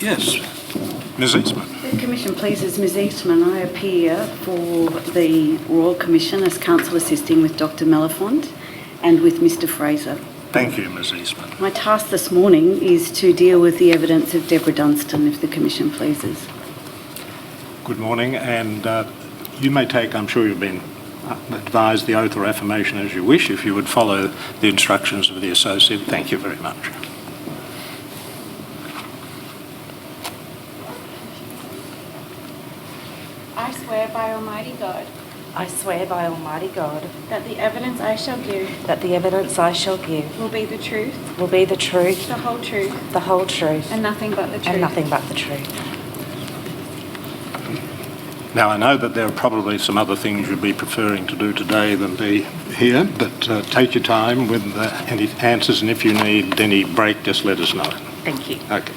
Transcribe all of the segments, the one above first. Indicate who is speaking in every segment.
Speaker 1: Yes. Ms. Eastman?
Speaker 2: The Commission pleases Ms Eastman. I appear for the Royal Commission as counsel assisting with Dr Mellifont and with Mr Fraser.
Speaker 1: Thank you, Ms. Eastman.
Speaker 2: My task this morning is to deal with the evidence of Deborah Dunstan, if the Commission pleases.
Speaker 1: Good morning, and uh, you may take, I'm sure you've been uh, advised the oath or affirmation as you wish, if you would follow the instructions of the associate. Thank you very much.
Speaker 3: I swear by Almighty God
Speaker 4: I swear by Almighty God
Speaker 3: that the evidence I shall give
Speaker 4: that the evidence I shall give
Speaker 3: will be the truth,
Speaker 4: will be the truth,
Speaker 3: the whole truth,
Speaker 4: the whole truth,
Speaker 3: and nothing but the truth.
Speaker 4: and nothing but the truth.
Speaker 1: Now, I know that there are probably some other things you'd be preferring to do today than be here, but uh, take your time with uh, any answers, and if you need any break, just let us know.
Speaker 4: Thank you.
Speaker 1: Okay.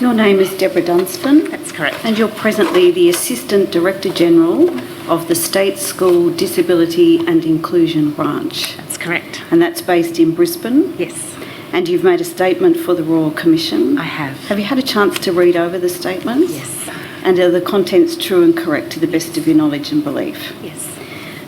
Speaker 2: Your name is Deborah Dunstan
Speaker 4: That's correct.
Speaker 2: and you're presently the Assistant Director General of the State School Disability and Inclusion Branch
Speaker 4: That's correct.
Speaker 2: and that's based in Brisbane
Speaker 4: Yes,
Speaker 2: and you've made a statement for the Royal Commission.
Speaker 4: I have.
Speaker 2: Have you had a chance to read over the statements?
Speaker 4: Yes,
Speaker 2: And are the contents true and correct to the best of your knowledge and belief?
Speaker 4: yes.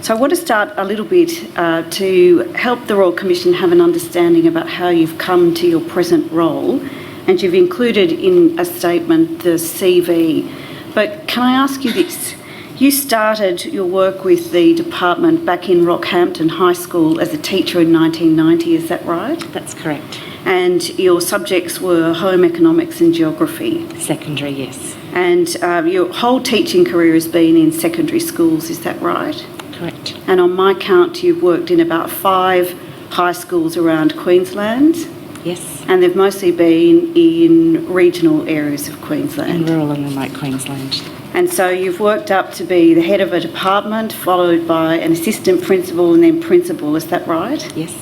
Speaker 2: So I want to start a little bit uh, to help the Royal Commission have an understanding about how you've come to your present role. And you've included in a statement the CV. But can I ask you this? You started your work with the department back in Rockhampton High School as a teacher in 1990, is that right?
Speaker 4: That's correct.
Speaker 2: And your subjects were home economics and geography.
Speaker 4: Secondary, yes.
Speaker 2: And um, your whole teaching career has been in secondary schools, is that right?
Speaker 4: Correct.
Speaker 2: And on my count, you've worked in about five high schools around Queensland,
Speaker 4: Yes.
Speaker 2: and they've mostly been in regional areas of
Speaker 4: In
Speaker 2: Queensland.
Speaker 4: rural and remote Queensland.
Speaker 2: And so you've worked up to be the head of a department, followed by an assistant principal and then principal, is that right?
Speaker 4: Yes.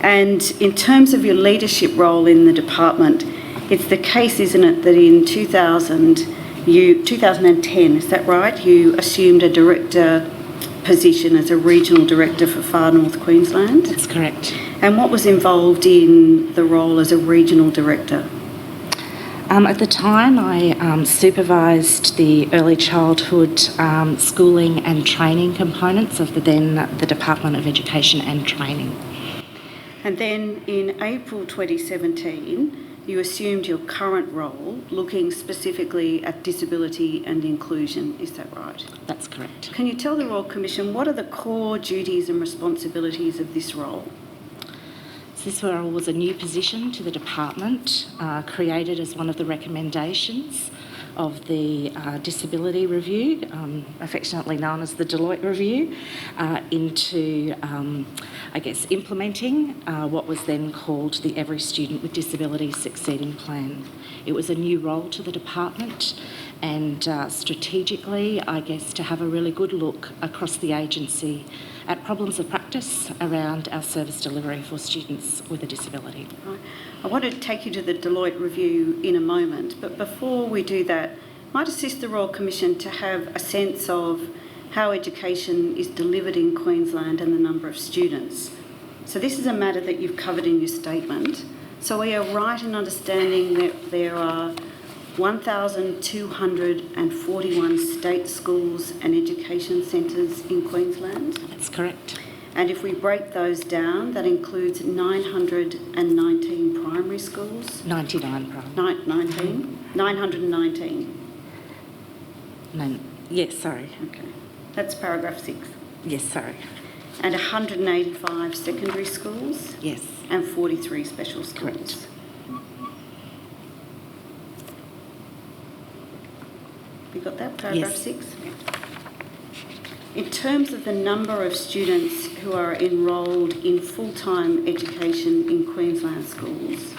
Speaker 2: And in terms of your leadership role in the department, it's the case, isn't it, that in 2000, you, 2010, is that right? You assumed a director position as a regional director for Far North Queensland.
Speaker 4: That's correct.
Speaker 2: And what was involved in the role as a regional director?
Speaker 4: Um, at the time, I um, supervised the early childhood um, schooling and training components of the then the Department of Education and Training.
Speaker 2: And then in April 2017, you assumed your current role, looking specifically at disability and inclusion, is that right?
Speaker 4: That's correct.
Speaker 2: Can you tell the Royal Commission what are the core duties and responsibilities of this role?
Speaker 4: So This were- was a new position to the department, uh, created as one of the recommendations of the uh, Disability Review, um, affectionately known as the Deloitte Review, uh, into, um, I guess, implementing uh, what was then called the Every Student with Disability Succeeding Plan. It was a new role to the department, and uh, strategically, I guess, to have a really good look across the agency at problems of practice around our service delivery for students with a disability.
Speaker 2: Right. I want to take you to the Deloitte review in a moment, but before we do that, might assist the Royal Commission to have a sense of how education is delivered in Queensland and the number of students. So this is a matter that you've covered in your statement. So we are right in understanding that there are 1,241 state schools and education centres in Queensland?
Speaker 4: That's correct.
Speaker 2: And if we break those down, that includes 919 primary schools,
Speaker 4: 99 problem.
Speaker 2: ni- 19, 919.
Speaker 4: No, yes, sorry.
Speaker 2: Okay. That's paragraph six.
Speaker 4: Yes, sorry.
Speaker 2: And 185 secondary schools
Speaker 4: Yes,
Speaker 2: and 43 special schools.
Speaker 4: Correct.
Speaker 2: You got that, paragraph
Speaker 4: Yes.
Speaker 2: six? In terms of the number of students who are enrolled in full-time education in Queensland schools,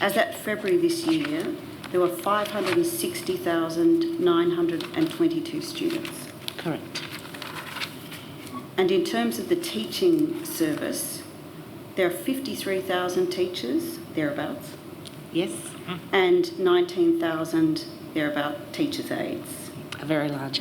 Speaker 2: as at February this year, there were 560,922 students.
Speaker 4: correct.
Speaker 2: And in terms of the teaching service, there are 53,000 teachers, thereabouts,
Speaker 4: Yes,
Speaker 2: and 19,000, thereabout, teachers' aides.
Speaker 4: a very large